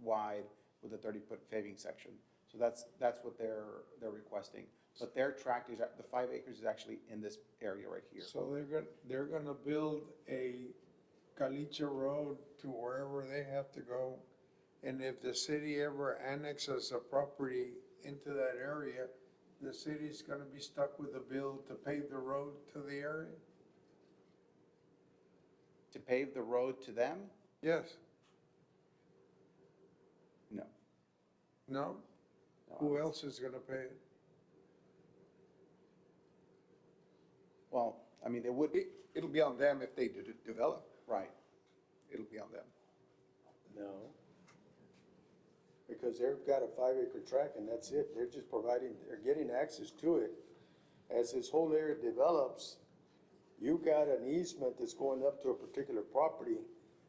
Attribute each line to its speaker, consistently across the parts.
Speaker 1: wide with a thirty-foot paving section. So that's, that's what they're, they're requesting. But their tract is, at- the five acres is actually in this area right here.
Speaker 2: So they're gonna, they're gonna build a Galicia Road to wherever they have to go. And if the city ever annexes a property into that area, the city's gonna be stuck with the bill to pave the road to the area?
Speaker 1: To pave the road to them?
Speaker 2: Yes,
Speaker 1: No.
Speaker 2: no?
Speaker 1: No, I-
Speaker 2: Who else is gonna pay it?
Speaker 1: Well, I mean, they would,
Speaker 3: It, it'll be on them if they de- develop.
Speaker 1: right.
Speaker 3: It'll be on them.
Speaker 4: No. Because they've got a five acre tract and that's it. They're just providing, they're getting access to it. As this whole area develops, you got an easement that's going up to a particular property.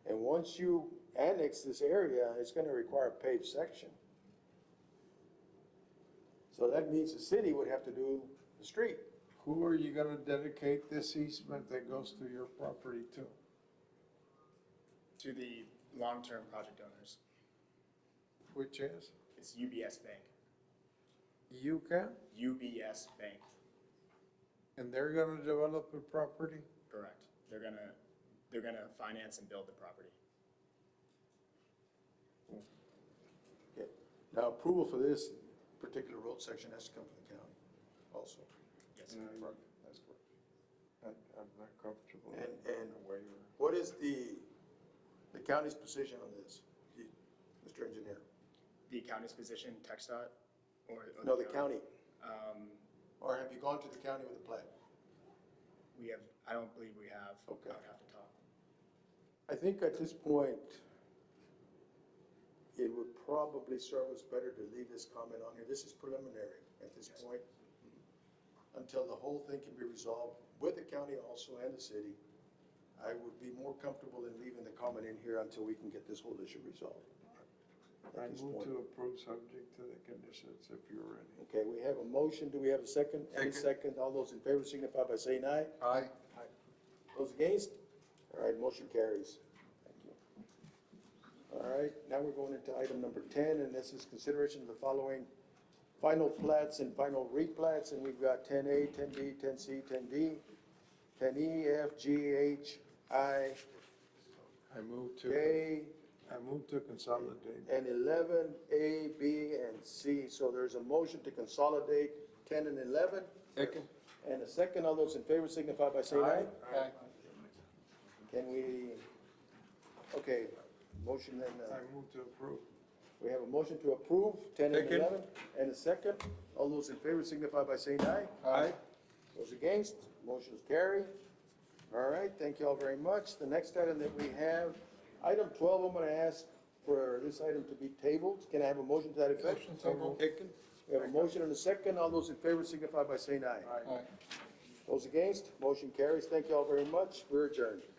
Speaker 4: And once you annex this area, it's gonna require a paved section. So that means the city would have to do the street.
Speaker 2: Who are you gonna dedicate this easement that goes through your property to?
Speaker 5: to the long-term project owners.
Speaker 2: Which is
Speaker 5: It's UBS Bank,
Speaker 2: Yucca,
Speaker 5: UBS Bank,
Speaker 2: and they're gonna develop a property?
Speaker 5: correct. They're gonna, they're gonna finance and build the property.
Speaker 3: Okay. Now, approval for this particular road section has to come from the county also.
Speaker 5: Yes,
Speaker 3: Mm.
Speaker 2: That's correct. I- I'm not comfortable.
Speaker 3: And,
Speaker 2: with
Speaker 3: and
Speaker 2: the waiver.
Speaker 3: what is the, the county's position on this, the- Mr. Engineer?
Speaker 5: the county's position, TechStot, or? or
Speaker 3: No, the county,
Speaker 5: Um,
Speaker 3: or have you gone to the county with a plan?
Speaker 5: we have, I don't believe we have. I would
Speaker 3: Okay.
Speaker 5: have to talk.
Speaker 4: I think at this point, it would probably serve us better to leave this comment on here. This is preliminary at this point. Until the whole thing can be resolved with the county also and the city, I would be more comfortable in leaving the comment in here until we can get this whole issue resolved.
Speaker 2: I
Speaker 4: At this
Speaker 2: move
Speaker 4: point.
Speaker 2: to approve subject to the conditions if you're ready.
Speaker 4: Okay, we have a motion. Do we have a second? Any second? All those in favor signify by saying aye.
Speaker 3: Aye.
Speaker 4: Those against? All right, motion carries. Thank you. All right, now we're going into item number ten, and this is consideration of the following final plats and final replats, and we've got ten A, ten B, ten C, ten D, ten E, F, G, H, I,
Speaker 2: I move to,
Speaker 4: J,
Speaker 2: I move to consolidate.
Speaker 4: and eleven, A, B, and C. So there's a motion to consolidate ten and eleven. Second. And a second, all those in favor signify by saying aye. Can we, okay, motion and, uh,
Speaker 2: I move to approve.
Speaker 4: we have a motion to approve, ten and
Speaker 2: Second.
Speaker 4: eleven, and a second. All those in favor signify by saying aye.
Speaker 2: Aye.
Speaker 4: Those against, motion's carry. All right, thank you all very much. The next item that we have, item twelve, I'm gonna ask for this item to be tabled. Can I have a motion to that effect?
Speaker 3: Aiken?
Speaker 4: We have a motion and a second. All those in favor signify by saying aye.
Speaker 3: Aye.
Speaker 4: Those against, motion carries. Thank you all very much. We're adjourned.